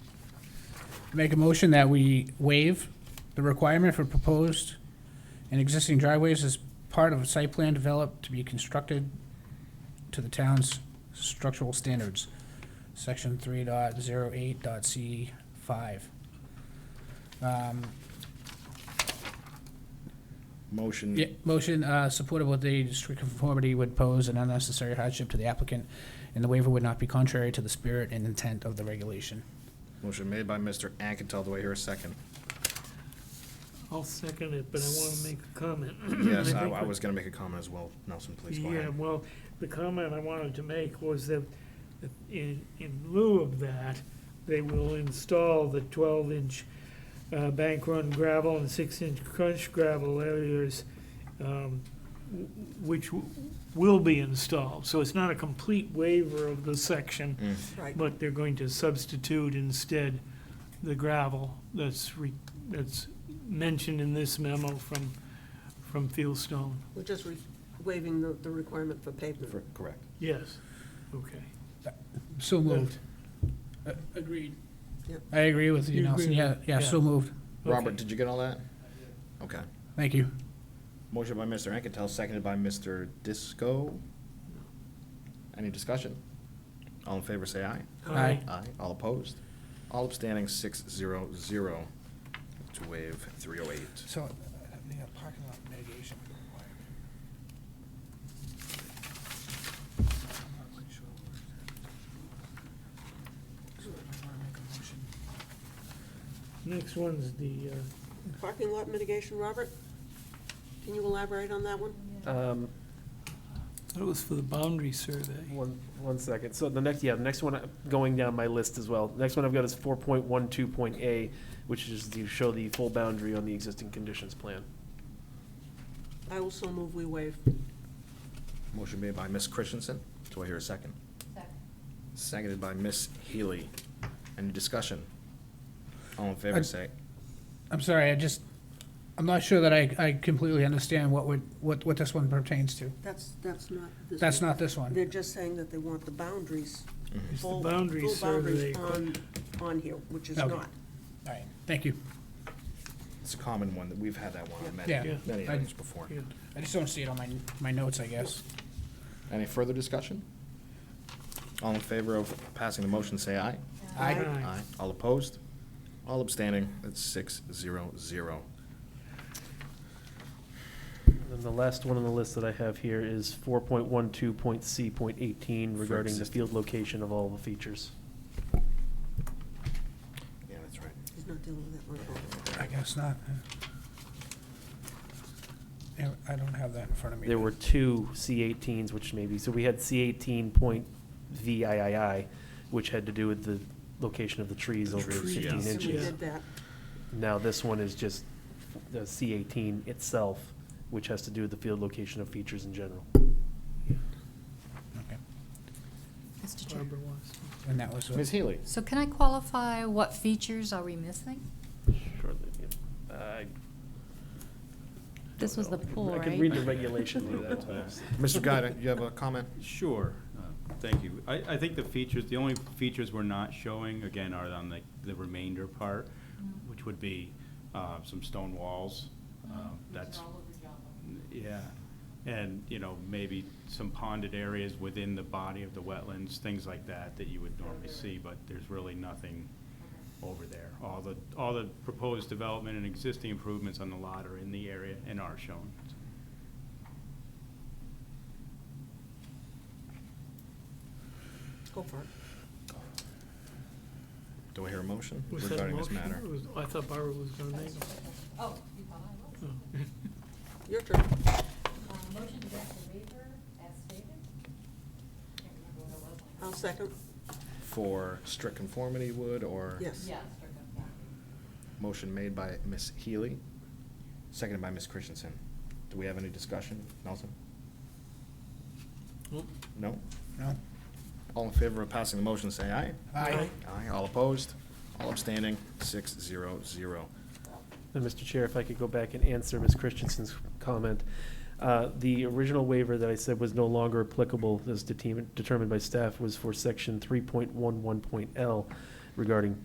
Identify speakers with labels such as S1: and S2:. S1: Make a motion that we waive the requirement for proposed and existing driveways as part of a site plan developed to be constructed to the town's structural standards, section three dot zero eight dot C five. Um,
S2: Motion.
S1: Yeah, motion, uh, supported with the strict conformity would pose an unnecessary hardship to the applicant, and the waiver would not be contrary to the spirit and intent of the regulation.
S2: Motion made by Mr. Anketell. Do I hear a second?
S3: I'll second it, but I want to make a comment.
S2: Yes, I
S3: think
S2: I
S3: what-
S2: was gonna make a comment as well. Nelson, please go
S3: Yeah,
S2: ahead.
S3: well, the comment I wanted to make was that that in, in lieu of that, they will install the twelve-inch bank run gravel and six-inch crunch gravel areas, um, w- which w- will be installed. So it's not a complete waiver of the section,
S4: Right.
S3: but they're going to substitute instead the gravel that's, re- that's mentioned in this memo from, from Fieldstone.
S4: We're just re- waiving the, the requirement for pavement.
S2: For- Correct.
S3: Yes, okay.
S1: So moved. Uh, Agreed.
S4: Yep.
S1: I agree with you,
S3: You
S1: Nelson,
S3: agree
S1: yeah,
S3: with-
S1: yeah, so
S3: yeah.
S1: moved,
S2: Robert,
S3: Okay.
S2: did you get all that? Okay.
S1: thank you.
S2: Motion by Mr. Anketell, seconded by Mr. Disco. Any discussion? All in favor, say aye.
S1: Aye.
S2: Aye. All opposed? All abstaining, six zero zero to waive three oh eight.
S1: So, yeah, parking lot mitigation.
S3: Next one's the, uh,
S4: Parking lot mitigation, Robert? Can you elaborate on that one?
S5: Um,
S3: that was for the boundary survey.
S5: one, one second. So the next, yeah, the next one, uh, going down my list as well. Next one I've got is four point one two point A, which is to show the full boundary on the existing conditions plan.
S4: I also move we waive.
S2: Motion made by Ms. Christensen. Do I hear a second? Seconded by Ms. Healy. Any discussion? All in
S1: I-
S2: favor, say
S1: I'm sorry, I just, I'm not sure that I, I completely understand what would, what, what this one pertains to.
S4: That's, that's not. this
S1: That's
S4: one.
S1: not this one.
S4: They're just saying that they want the boundaries.
S3: It's the
S4: full-
S3: boundary
S4: full
S3: survey.
S4: boundaries On, on here, which is
S1: Okay.
S4: not.
S1: All right, thank you.
S2: It's a common one, that we've had that one on
S1: Yeah.
S2: many, many
S1: I-
S2: items before.
S3: Yeah.
S1: I just don't see it on my, my notes, I guess.
S2: Any further discussion? All in favor of passing the motion, say aye.
S1: I,
S4: Aye.
S2: All opposed? All abstaining? That's six zero zero.
S5: And then the last one on the list that I have here is four point one two point C point eighteen
S2: For
S5: regarding the
S2: existing-
S5: field location of all the features.
S2: Yeah, that's right.
S4: He's not dealing with that one at all.
S1: I guess not. Yeah, I don't have that in front of me.
S5: There were two C-18s, which maybe, so we had C-18 point VIII, which had to do with the location of the trees
S2: The
S5: over
S2: trees,
S5: 15
S2: yeah.
S4: So we
S5: inches.
S4: did that.
S5: Now, this one is just the C-18 itself, which has to do with the field location of features in general.
S1: Okay,
S6: Mr. Chair.
S3: Barbara wants to-
S1: And that was,
S2: Ms. Healy?
S6: So can I qualify what features are we missing?
S5: Shortly, yeah. I
S6: This
S5: don't
S6: was
S5: know.
S6: the pool,
S5: I can read
S6: right?
S5: the regulation through that.
S2: Mr. Guy, you have a comment?
S7: Sure, uh, thank you. I, I think the features, the only features we're not showing, again, are on the, the remainder part, which would be uh, some stone walls. um, That's, yeah, and, you know, maybe some ponded areas within the body of the wetlands, things like that, that you would normally see, but there's really nothing over there. All the, all the proposed development and existing improvements on the lot are in the area and are shown.
S4: Go for it.
S2: Do I hear a motion
S3: Was that a
S2: regarding this
S3: motion?
S2: matter?
S3: It was- I thought Barbara was going to make it.
S6: Oh, you thought I was.
S3: Oh.
S4: Your turn.
S6: Motion to grant the waiver as stated? Can't remember what it
S4: I'll second.
S2: For strict conformity would, or?
S4: Yes.
S2: Motion made by Ms. Healy, seconded by Ms. Christensen. Do we have any discussion? Nelson?
S3: Nope.
S2: No?
S1: no?
S2: All in favor of passing the motion, say aye.
S1: Aye.
S2: Aye. All opposed? All abstaining? Six zero zero.
S5: And Mr. Chair, if I could go back and answer Ms. Christensen's comment. Uh, The original waiver that I said was no longer applicable, as determined determined by staff, was for section 3.11.L regarding